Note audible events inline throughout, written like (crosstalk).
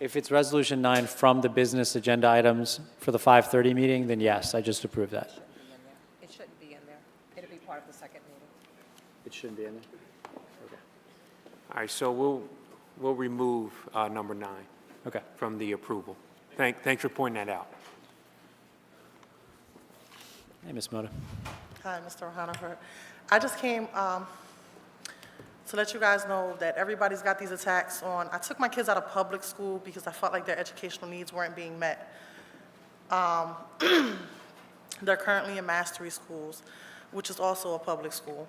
If it's Resolution 9 from the business agenda items for the 5:30 meeting, then yes, I just approve that. It shouldn't be in there. It'll be part of the second meeting. It shouldn't be in there? All right, so we'll, we'll remove uh, number nine Okay. from the approval. Thank, thanks for pointing that out. Hey, Ms. Moda. Hi, Mr. Honifer. I just came um, to let you guys know that everybody's got these attacks on, I took my kids out of public school because I felt like their educational needs weren't being met. Um, (clears throat) They're currently in mastery schools, which is also a public school.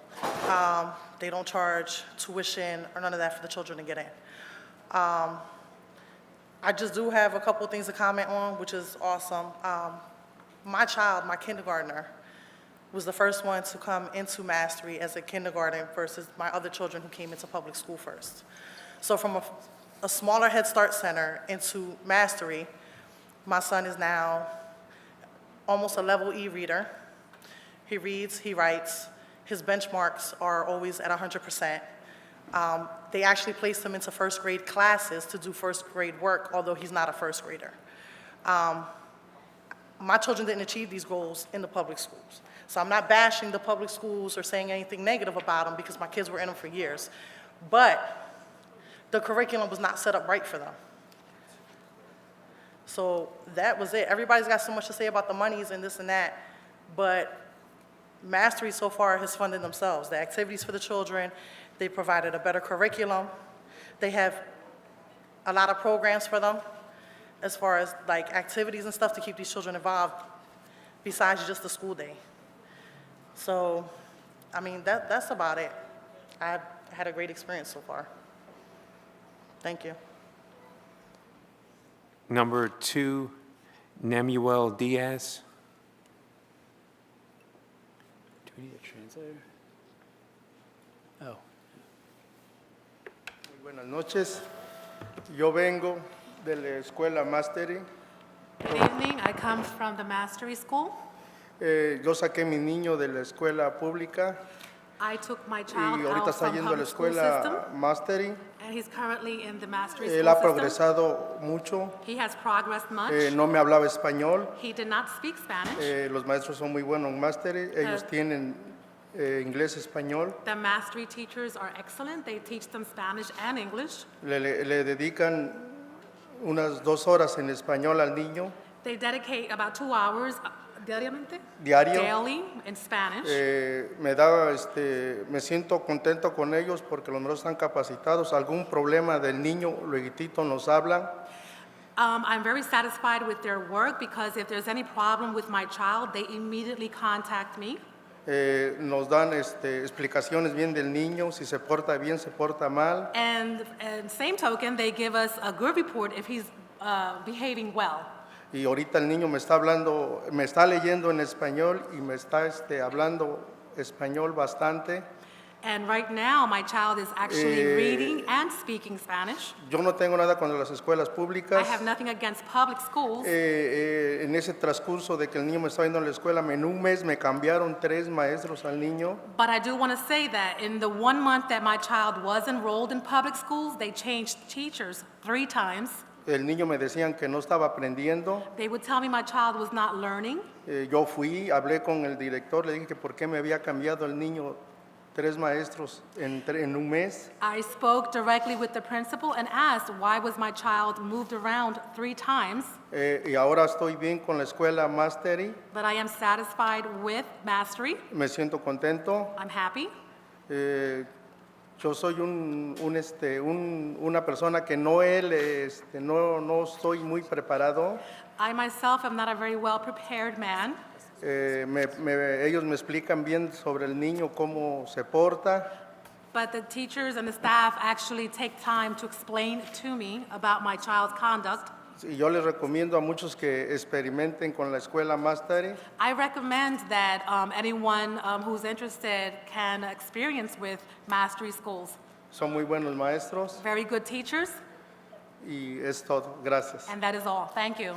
Um, They don't charge tuition or none of that for the children to get in. Um, I just do have a couple things to comment on, which is awesome. Um, My child, my kindergartner, was the first one to come into mastery as a kindergarten versus my other children who came into public school first. So from a, a smaller Head Start center into mastery, my son is now almost a level E reader. He reads, he writes, his benchmarks are always at 100%. Um, they actually placed him into first grade classes to do first grade work, although he's not a first grader Um, my children didn't achieve these goals in the public schools. So I'm not bashing the public schools or saying anything negative about them because my kids were in them for years. But the curriculum was not set up right for them. So that was it. Everybody's got so much to say about the monies and this and that, but Mastery so far has funded themselves. The activities for the children, they provided a better curriculum. They have a lot of programs for them as far as like activities and stuff to keep these children involved besides just the school day. So, I mean, that, that's about it. I've had a great experience so far. Thank you. Number two, Nemuel Diaz. Do we need a translator? Oh. Muy Buenas noches. Yo vengo de la escuela Mastery. Good evening, I come from the Mastery School. Eh, yo saqué mi niño de la escuela pública I took my child y ahorita out está from yendo a la public school system, escuela Mastery. and he's currently in the Mastery Él ha School system. progresado mucho. He has progressed Eh, much. no me hablaba español. He did not speak Spanish. Eh, los maestros son muy buenos en Mastery. Ellos Ah. tienen eh, inglés, español. The Mastery teachers are excellent, they teach them Spanish and English. Le, le- le dedican unas dos horas en español al niño. They dedicate about two hours, uh, diariamente? Diario. Daily, in Spanish. Eh, me da, este, me siento contento con ellos porque los maestros están capacitados. Algún problema del niño, luego nos hablan. Um, I'm very satisfied with their work, because if there's any problem with my child, they immediately contact me. Eh, nos dan este, explicaciones bien del niño, si se porta bien, se porta mal. And, and same token, they give us a good report if he's uh, behaving well. Y ahorita el niño me está hablando, me está leyendo en español y me está este, hablando español bastante. And right now, my child is actually Eh, reading and speaking Spanish. Yo no tengo nada contra las escuelas I públicas. have nothing against public schools. Eh, eh, en ese transcurso de que el niño me está viendo en la escuela, en un mes me cambiaron tres maestros al niño. But I do want to say that in the one month that my child was enrolled in public schools, they changed teachers three times. El niño me decían que no estaba aprendiendo. They would tell me my child was not learning. Eh, yo fui, hablé con el director, le dije que por qué me había cambiado el niño tres maestros en, tre- en un mes. I spoke directly with the principal and asked why was my child moved around three times. Eh, y ahora estoy bien con la escuela Mastery, But I am satisfied with mastery. me siento contento. I'm happy. Eh, yo soy un, un, este, un- una persona que no, él, este, no, no estoy muy preparado. I myself am not a very well-prepared man. Eh, me- me- ellos me explican bien sobre el niño, cómo se porta. But the teachers and the staff actually take time to explain to me about my child's conduct. Y yo les recomiendo a muchos que experimenten con la escuela Mastery. I recommend that um, anyone um, who's interested can experience with Mastery Schools. Son muy buenos maestros Very good teachers, y es todo. Gracias. and that is all. Thank you.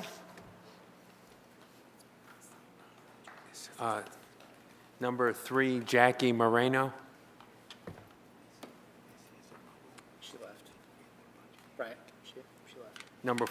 Uh, Number three, Jackie Moreno. She left. Right, she, she left. Number